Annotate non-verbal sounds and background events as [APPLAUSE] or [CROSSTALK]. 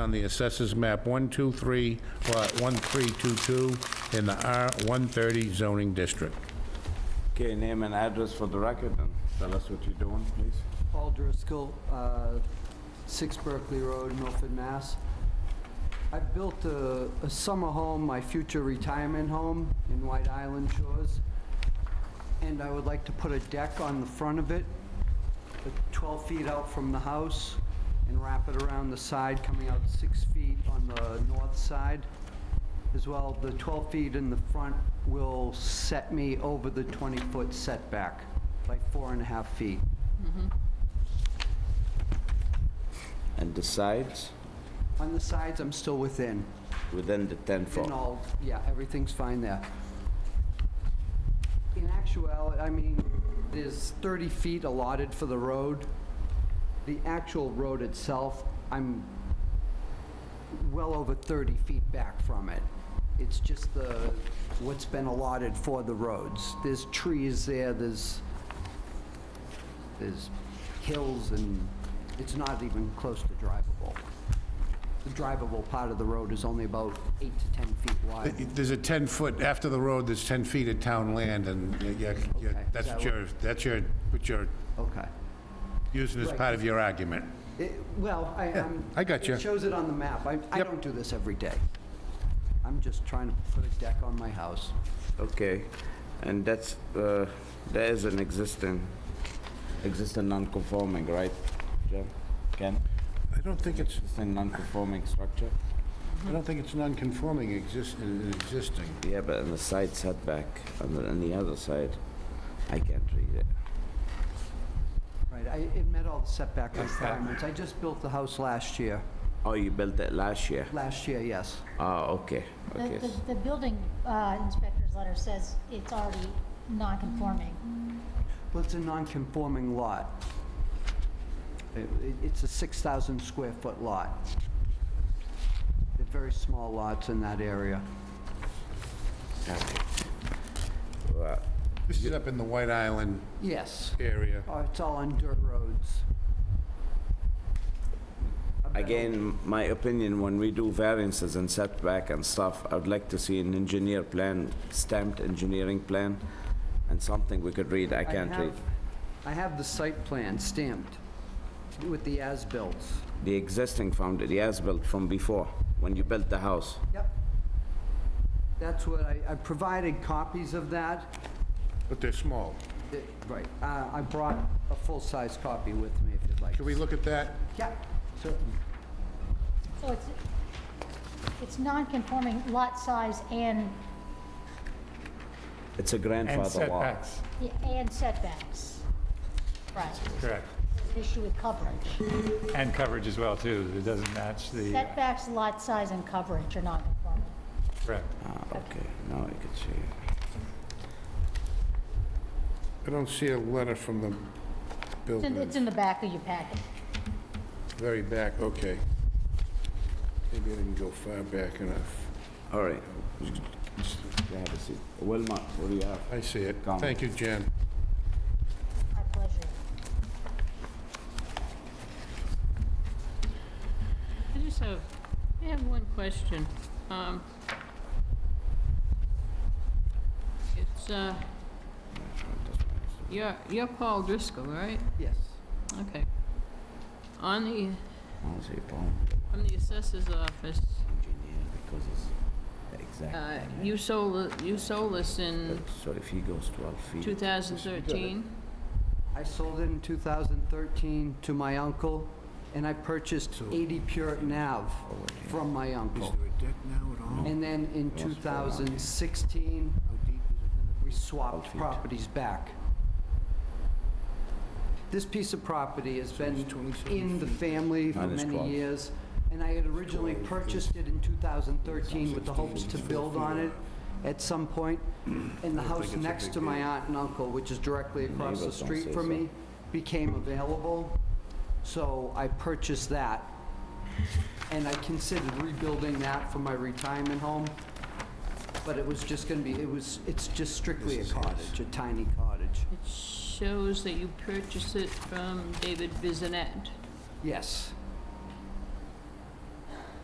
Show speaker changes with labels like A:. A: on the assessors map 123, lot 1322, in the R130 zoning district.
B: Okay, name and address for the record and tell us what you're doing, please.
C: Paul Driscoll, uh, 6 Berkeley Road, Milford, Mass. I built a a summer home, my future retirement home in White Island Shores, and I would like to put a deck on the front of it, uh, 12 feet out from the house, and wrap it around the side, coming out 6 feet on the north side. As well, the 12 feet in the front will set me over the 20-foot setback, by four and a half feet.
B: And the sides,
C: On the sides, I'm still within.
B: within the 10 foot.
C: And all, yeah, everything's fine there. In actuality, I mean, there's 30 feet allotted for the road. The actual road itself, I'm well over 30 feet back from it. It's just the, what's been allotted for the roads. There's trees there, there's, there's hills, and it's not even close to drivable. The drivable part of the road is only about eight to 10 feet wide.
A: There's a 10-foot, after the road, there's 10 feet of town land, and y- y- y-
C: Okay,
A: that's
C: so-
A: what you're, that's your, what you're
C: Okay.
A: using as
C: Right.
A: part of your argument.
C: It- Well, I, I'm...
A: I gotcha.
C: It shows it on the map. I, I
A: Yep.
C: don't do this every day. I'm just trying to put a deck on my house.
B: Okay, and that's, uh, there is an existing, existing non-conforming, right, Jim? Ken?
A: I don't think it's,
B: Existing non-conforming structure?
A: I don't think it's non-conforming exist- uh, existing.
B: Yeah, but on the side setback, on the, on the other side, I can't read it.
C: Right, I, it met all the setback requirements. I just built the house last year.
B: Oh, you built it last year?
C: Last year, yes.
B: Oh, okay,
D: The,
B: okay.
D: the, the building uh, inspector's letter says it's already non-conforming.
C: Well, it's a non-conforming lot. It- it- It's a 6,000 square foot lot. They're very small lots in that area.
B: Well,
A: This is up in the White Island
C: Yes.
A: area.
C: Oh, It's all on dirt roads. I've been-
B: Again, my opinion, when we do variances and setback and stuff, I'd like to see an engineer plan, stamped engineering plan, and something we could read, I
C: I
B: can't read.
C: have- I have the site plan stamped with the as-built.
B: The existing found the as-built from before, when you built the house.
C: Yep. That's what I, I provided copies of that.
A: But they're small.
C: It- Right, uh, I brought a full-size copy with me if you'd like.
A: Can we look at that?
C: Yeah, certainly.
D: So it's, it's non-conforming lot size and,
B: It's a grandfather law.
D: and setbacks. Right,
E: Correct.
D: There's an issue with coverage.
E: And coverage as well, too. It doesn't match the, uh,
D: Setbacks, lot size, and coverage are non-conforming.
E: correct.
B: Ah, okay, now I could see. it.
A: I don't see a letter from the
D: It's in-
A: building,
D: It's in the back of your packet.
A: very back, okay. Maybe I didn't go far back enough.
B: All right. You have a seat. Wilma, what do you have?
A: I see it.
B: Comment.
A: Thank you, Jan.
D: My pleasure.
F: I just have, I have one question. Um, It's, uh, you're, you're Paul Driscoll, right?
C: Yes.
F: Okay. On the,
B: I'll say Paul,
F: on the assessor's office,
B: engineer, because it's the
F: uh,
B: exact.
F: you sold, th- you sold this in
B: So if he goes 12 feet.
F: 2013?
C: I sold it in 2013 to my uncle, and I purchased 80 Puritan Ave from my uncle. And then in 2016, we swapped properties back. This piece of property has been in the family for
B: Minus
C: many
B: 12.
C: years, and I had originally purchased it in 2013 with the hopes to build on it at
B: [CLEARS THROAT]
C: some point. And the house next to my aunt and uncle, which is directly across the
B: Neighbors don't
C: street
B: say
C: from
B: so.
C: me, became available, so I purchased that. And I considered rebuilding that for my retirement home, but it was just gonna be, it was, it's just strictly a cottage, a tiny cottage.
F: It shows that you purchased it from David Bizinet.
C: Yes,